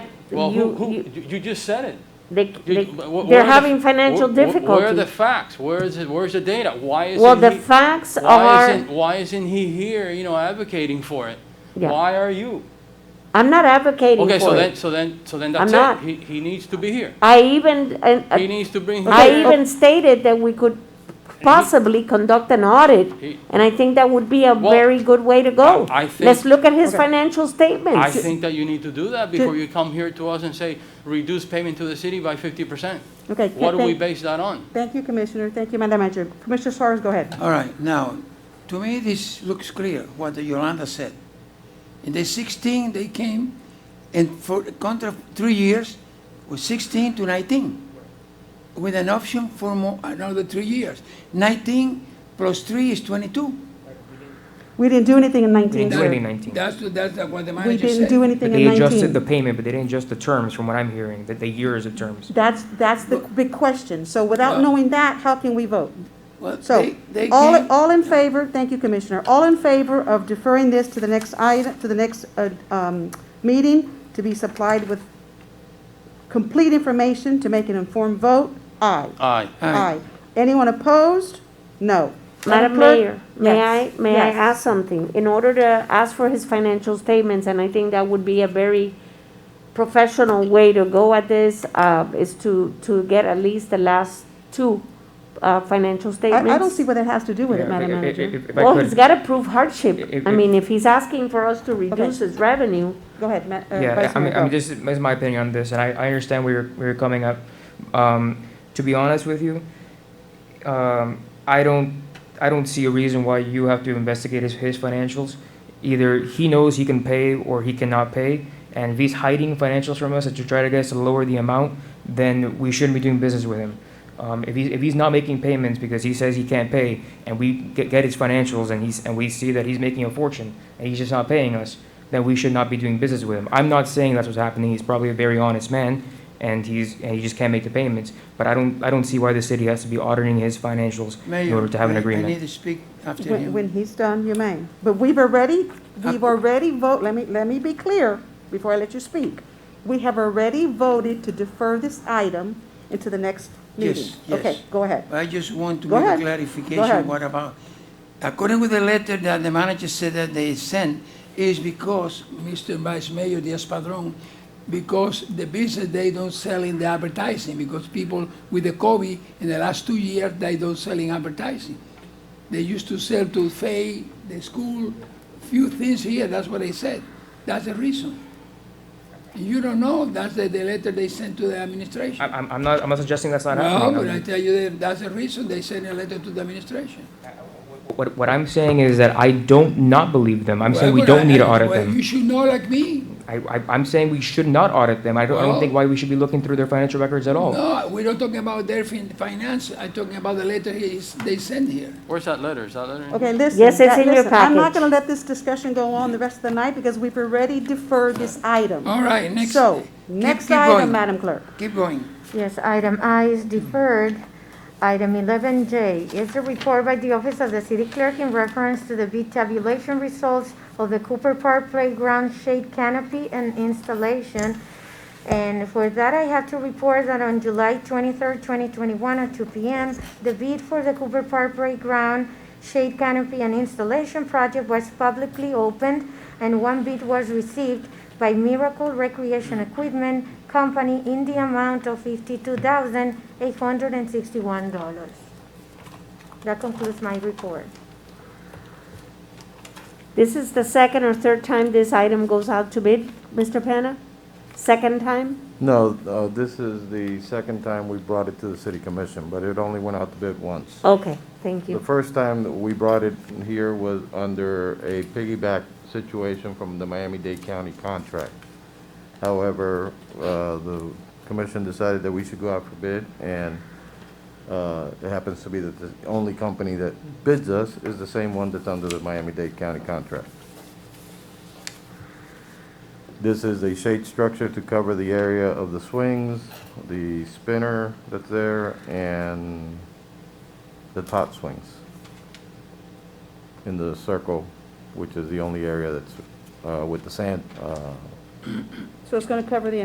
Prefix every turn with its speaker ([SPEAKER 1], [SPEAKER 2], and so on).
[SPEAKER 1] Well, who,
[SPEAKER 2] you-
[SPEAKER 1] who,
[SPEAKER 2] you-
[SPEAKER 1] you you just said it.
[SPEAKER 2] They,
[SPEAKER 1] You-
[SPEAKER 2] they,
[SPEAKER 1] wh- wh- where
[SPEAKER 2] they're
[SPEAKER 1] are the-
[SPEAKER 2] having financial
[SPEAKER 1] wh- wh- Where are the
[SPEAKER 2] difficulties.
[SPEAKER 1] facts? Where is it, where's the data? Why isn't he?
[SPEAKER 2] Well, the facts
[SPEAKER 1] Why
[SPEAKER 2] are,
[SPEAKER 1] isn't, why isn't he here, you know, advocating for it?
[SPEAKER 2] Yeah.
[SPEAKER 1] Why are you?
[SPEAKER 2] I'm not advocating
[SPEAKER 1] Okay, so
[SPEAKER 2] for
[SPEAKER 1] then,
[SPEAKER 2] it.
[SPEAKER 1] so then, so then
[SPEAKER 2] I'm
[SPEAKER 1] that's
[SPEAKER 2] not.
[SPEAKER 1] it. He, he needs to be here.
[SPEAKER 2] I even, and, uh,
[SPEAKER 1] He needs to bring. him
[SPEAKER 2] I
[SPEAKER 1] here.
[SPEAKER 2] even stated that we could possibly conduct an audit,
[SPEAKER 1] He-
[SPEAKER 2] and I think that would be a
[SPEAKER 1] Well,
[SPEAKER 2] very good way to go.
[SPEAKER 1] I- I think-
[SPEAKER 2] Let's look at his
[SPEAKER 3] Okay.
[SPEAKER 2] financial statements.
[SPEAKER 1] I think that you need to do that before you come here to us and say, reduce payment to the city by fifty percent.
[SPEAKER 3] Okay.
[SPEAKER 1] What do we
[SPEAKER 3] thank-
[SPEAKER 1] base that on?
[SPEAKER 3] Thank you, Commissioner. Thank you, Madam Manager. Commissioner Suarez, go ahead.
[SPEAKER 4] All right, now, to me, this looks clear, what Yolanda said. In the 16, they came, and for the contract, three years, was 16 to 19, with an option for more, another three years. 19 plus three is 22.
[SPEAKER 3] We didn't do anything in 19,
[SPEAKER 5] didn't do anything
[SPEAKER 3] sir.
[SPEAKER 5] in 19.
[SPEAKER 4] That's, that's what the
[SPEAKER 3] We
[SPEAKER 4] manager
[SPEAKER 3] didn't do
[SPEAKER 4] said.
[SPEAKER 3] anything
[SPEAKER 5] But
[SPEAKER 3] in
[SPEAKER 5] they adjusted the
[SPEAKER 3] 19.
[SPEAKER 5] payment, but they didn't adjust the terms, from what I'm hearing, that the years of terms.
[SPEAKER 3] That's, that's the big question. So without
[SPEAKER 4] Well-
[SPEAKER 3] knowing that, how can we vote?
[SPEAKER 4] Well,
[SPEAKER 3] So,
[SPEAKER 4] they- they
[SPEAKER 3] all,
[SPEAKER 4] came-
[SPEAKER 3] all in favor, thank you, Commissioner, all in favor of deferring this to the next item, to the next, uh, um, meeting, to be supplied with complete information to make an informed vote? Aye.
[SPEAKER 1] Aye.
[SPEAKER 4] Aye.
[SPEAKER 3] Anyone opposed? No.
[SPEAKER 2] Madam
[SPEAKER 3] Clerk?
[SPEAKER 2] Mayor, may I,
[SPEAKER 3] Yes,
[SPEAKER 2] may I
[SPEAKER 3] yes.
[SPEAKER 2] ask something? In order to ask for his financial statements, and I think that would be a very professional way to go at this, uh, is to, to get at least the last two, uh, financial statements.
[SPEAKER 3] I, I don't see what that has to do with it,
[SPEAKER 5] Yeah,
[SPEAKER 3] Madam
[SPEAKER 5] if- if-
[SPEAKER 3] Manager.
[SPEAKER 5] if- if I
[SPEAKER 2] Well,
[SPEAKER 5] could-
[SPEAKER 2] he's gotta prove hardship.
[SPEAKER 5] If-
[SPEAKER 2] I
[SPEAKER 5] if-
[SPEAKER 2] mean, if he's asking for us to reduce his revenue,
[SPEAKER 3] Go ahead, Ma- uh,
[SPEAKER 5] Yeah,
[SPEAKER 3] Vice
[SPEAKER 5] I mean,
[SPEAKER 3] Mayor,
[SPEAKER 5] I mean,
[SPEAKER 3] go.
[SPEAKER 5] this is this is my opinion on this, and I, I understand where you're, where you're coming up. Um, to be honest with you, um, I don't, I don't see a reason why you have to investigate his, his financials. Either he knows he can pay or he cannot pay, and if he's hiding financials from us and to try to get us to lower the amount, then we shouldn't be doing business with him. Um, if he's, if he's not making payments because he says he can't pay, and we get, get his financials and he's, and we see that he's making a fortune, and he's just not paying us, then we should not be doing business with him. I'm not saying that's what's happening, he's probably a very honest man, and he's, and he just can't make the payments, but I don't, I don't see why the city has to be auditing his financials in
[SPEAKER 4] Mayor,
[SPEAKER 5] order to have an
[SPEAKER 4] I-
[SPEAKER 5] agreement.
[SPEAKER 4] I need to speak after
[SPEAKER 3] When,
[SPEAKER 4] him.
[SPEAKER 3] when he's done, you may. But we've already, we've already vote, let me, let me be clear before I let you speak. We have already voted to defer this item into the next
[SPEAKER 4] Yes,
[SPEAKER 3] meeting.
[SPEAKER 4] yes.
[SPEAKER 3] Okay, go ahead.
[SPEAKER 4] I just want to
[SPEAKER 3] Go
[SPEAKER 4] make a
[SPEAKER 3] ahead. Go ahead.
[SPEAKER 4] clarification, what about, according with the letter that the manager said that they sent, is because, Mr. Vice Mayor Diaz-Padrón, because the business, they don't sell in the advertising, because people with the COVID, in the last two years, they don't sell in advertising. They used to sell to Fay, the school, few things here, that's what they said. That's the reason. You don't know, that's the, the letter they sent to the administration.
[SPEAKER 5] I- I'm, I'm not, I'm not suggesting that's not
[SPEAKER 4] No,
[SPEAKER 5] happening.
[SPEAKER 4] but
[SPEAKER 5] I'm-
[SPEAKER 4] I tell you, that that's the reason they sent a letter to the administration.
[SPEAKER 5] What, what I'm saying is that I don't not believe them. I'm saying we
[SPEAKER 4] Well,
[SPEAKER 5] don't need to
[SPEAKER 4] I-
[SPEAKER 5] audit
[SPEAKER 4] well, You
[SPEAKER 5] them.
[SPEAKER 4] should know like me.
[SPEAKER 5] I, I, I'm saying we should not audit them. I don't, I don't
[SPEAKER 4] Well-
[SPEAKER 5] think why we should be looking through their financial records at all.
[SPEAKER 4] No, we're not talking about their fin- finance, I'm talking about the letter he is- they sent here.
[SPEAKER 1] Where's that letter? Is that letter? in-
[SPEAKER 3] Okay, listen.
[SPEAKER 2] Yes, it's
[SPEAKER 3] that-
[SPEAKER 2] in your
[SPEAKER 3] listen, I'm not
[SPEAKER 2] package.
[SPEAKER 3] gonna let this discussion go on the rest of the night because we've already deferred this item.
[SPEAKER 4] All right, next.
[SPEAKER 3] So,
[SPEAKER 4] keep-
[SPEAKER 3] next
[SPEAKER 4] keep
[SPEAKER 3] item,
[SPEAKER 4] going.
[SPEAKER 3] Madam Clerk.
[SPEAKER 4] Keep going.
[SPEAKER 6] Yes, item I is deferred. Item 11J is a report by the Office of the City Clerk in reference to the bid tabulation results of the Cooper Park Playground Shade Canopy and Installation. And for that, I have to report that on July 23rd, 2021, at 2 p.m., the bid for the Cooper Park Playground Shade Canopy and Installation Project was publicly opened, and one bid was received by Miracle Recreation Equipment Company in the amount of $52,861. That concludes my report.
[SPEAKER 2] this is the second or third time this item goes out to bid, Mr. Penna? Second time?
[SPEAKER 7] No, uh, this is the second time we brought it to the city commission, but it only went out to bid once.
[SPEAKER 2] Okay, thank
[SPEAKER 7] The
[SPEAKER 2] you.
[SPEAKER 7] first time that we brought it here was under a piggyback situation from the Miami-Dade County contract. However, uh, the commission decided that we should go out for bid, and uh, it happens to be that the only company that bids us is the same one that's under the Miami-Dade County contract. This is a shade structure to cover the area of the swings, the spinner that's there, and the top swings in the circle, which is the only area that's uh, with the sand uh,
[SPEAKER 3] So it's gonna cover the